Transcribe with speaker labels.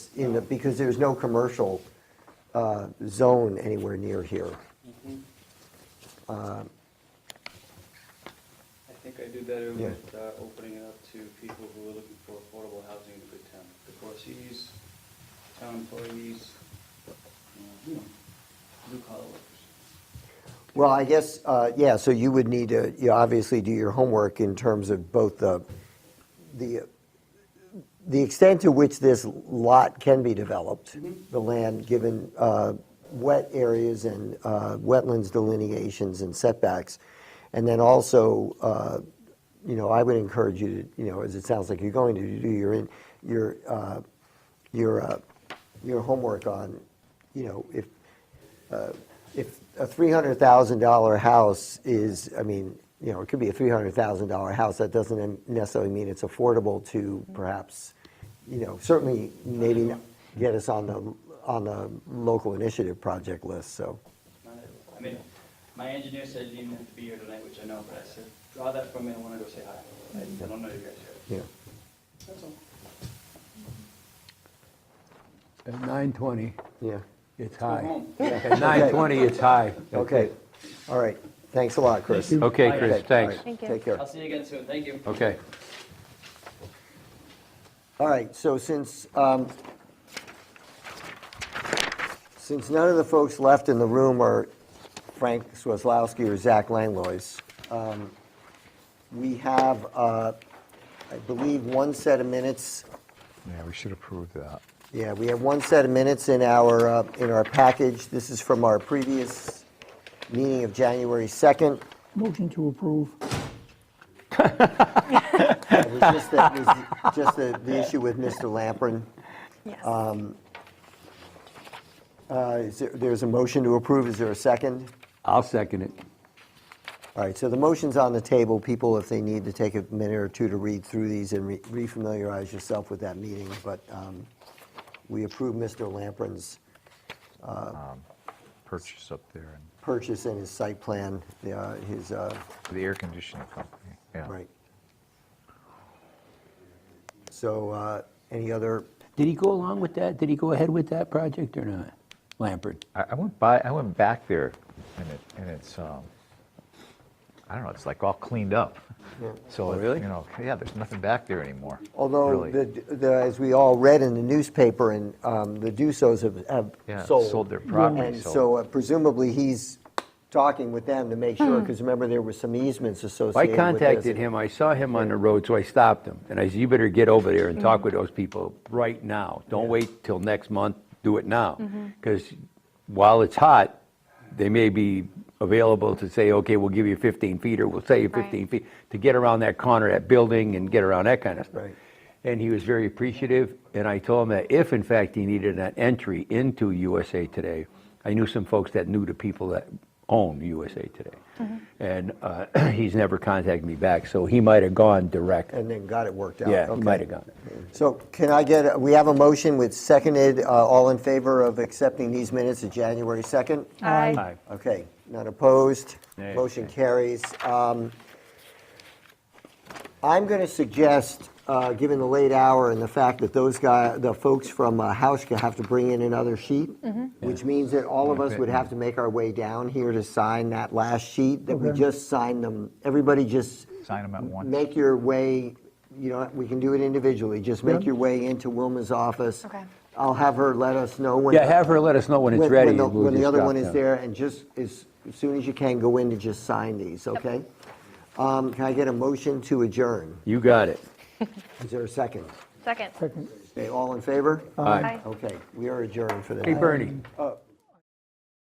Speaker 1: in the, because there's no commercial uh, zone anywhere near here.
Speaker 2: I think I do better
Speaker 1: Yeah.
Speaker 2: with uh, opening it up to people who are looking for affordable housing in a good town. The Corsi's, town employees, you know, you know, blue collar workers.
Speaker 1: Well, I guess, uh, yeah, so you would need to, you obviously do your homework in terms of both the, the, the extent to which this lot can be developed, the land, given uh, wet areas and uh, wetlands delineations and setbacks. And then also, uh, you know, I would encourage you to, you know, as it sounds like you're going to do your, in- your, uh, your, uh, your homework on, you know, if, if a $300,000 house is, I mean, you know, it could be a $300,000 house, that doesn't necessarily mean it's affordable to perhaps, you know, certainly maybe get us on the, on the local initiative project list, so.
Speaker 2: Not everyone. I mean, my engineer said you didn't have to be here tonight, which I know, but I said, draw that from me, I want to go say hi. I I don't know you guys yet.
Speaker 1: Yeah.
Speaker 2: That's all.
Speaker 3: At 9:20,
Speaker 1: Yeah.
Speaker 3: it's high.
Speaker 2: home.
Speaker 3: At 9:20, it's high.
Speaker 1: Okay. All right. Thanks a lot, Chris.
Speaker 3: Okay,
Speaker 1: Okay, all
Speaker 3: Chris,
Speaker 1: right.
Speaker 3: thanks.
Speaker 4: Thank you.
Speaker 1: Take care.
Speaker 2: I'll see you again soon, thank you.
Speaker 3: Okay.
Speaker 1: All right, so since, um, since none of the folks left in the room are Frank Swaslowski or Zach Langlois, um, we have, uh, I believe, one set of minutes.
Speaker 5: Yeah, we should approve that.
Speaker 1: Yeah, we have one set of minutes in our, uh, in our package. This is from our previous meeting of January 2nd.
Speaker 6: Motion to approve.
Speaker 1: It was just that, it was just the, the issue with Mr. Lamprin.
Speaker 4: Yes.
Speaker 1: Uh, is there- There's a motion to approve. Is there a second?
Speaker 3: I'll second it.
Speaker 1: All right, so the motion's on the table. People, if they need to take a minute or two to read through these and re- refamiliarize yourself with that meeting, but um, we approve Mr. Lamprin's
Speaker 5: Purchase up there and
Speaker 1: purchase and his site plan, uh, his, uh,
Speaker 5: for the air conditioning company. Yeah.
Speaker 1: right. So uh, any other,
Speaker 3: Did he go along with that? Did he go ahead with that project or not? Lampert?
Speaker 5: I, I went by, I went back there and it, and it's, um, I don't know, it's like all cleaned up. So,
Speaker 3: Oh,
Speaker 5: it-
Speaker 3: really?
Speaker 5: you know, yeah, there's nothing back there anymore.
Speaker 1: although,
Speaker 5: really.
Speaker 1: the the- as we all read in the newspaper, and um, the Dusos have-
Speaker 5: Yeah,
Speaker 1: have sold.
Speaker 5: sold their property,
Speaker 1: And
Speaker 5: so-
Speaker 1: so uh, presumably, he's talking with them to make sure, because remember, there were some easements associated
Speaker 3: I
Speaker 1: with this.
Speaker 3: contacted him, I saw him on the road, so I stopped him. And I said, you better get over there and talk with those people right now. Don't wait till next month, do it now. Because while it's hot, they may be available to say, okay, we'll give you 15 feet, or we'll save you
Speaker 4: Right.
Speaker 3: 15 feet, to get around that corner, that building, and get around that kind of stuff.
Speaker 1: Right.
Speaker 3: And he was very appreciative, and I told him that if, in fact, he needed an entry into USA Today, I knew some folks that knew the people that own USA Today. And uh, he's never contacted me back, so he might have gone direct.
Speaker 1: And then got it worked out.
Speaker 3: Yeah, he
Speaker 1: Okay.
Speaker 3: might have gone.
Speaker 1: So can I get, a- we have a motion with seconded, uh, all in favor of accepting these minutes of January 2nd?
Speaker 4: Aye.
Speaker 1: Okay, none opposed,
Speaker 3: Nay.
Speaker 1: motion carries. Um, I'm going to suggest, uh, given the late hour and the fact that those guy, the folks from uh, Hauschka have to bring in another sheet,
Speaker 6: Mm-hmm.
Speaker 1: which means that all of us would have to make our way down here to sign that last sheet that we
Speaker 6: Okay.
Speaker 1: just signed them. Everybody just
Speaker 5: Sign them at once.
Speaker 1: make your way, you know, we can do it individually, just make
Speaker 6: Yeah.
Speaker 1: your way into Wilma's office.
Speaker 4: Okay.
Speaker 1: I'll have her let us know when.
Speaker 3: Yeah, have her let us know when it's
Speaker 1: when-
Speaker 3: ready.
Speaker 1: When the,
Speaker 3: and we'll
Speaker 1: when the
Speaker 3: just
Speaker 1: other
Speaker 3: drop
Speaker 1: one is
Speaker 3: down.
Speaker 1: there, and just as, as soon as you can, go in and just sign these, okay? Um, can I get a motion to adjourn?
Speaker 3: You got it.
Speaker 1: Is there a second?
Speaker 4: Second.
Speaker 6: Second.
Speaker 1: Okay, all in favor?
Speaker 3: Aye.
Speaker 4: Aye.
Speaker 1: Okay, we are adjourned for the
Speaker 3: Hey,
Speaker 1: night.
Speaker 3: Bernie,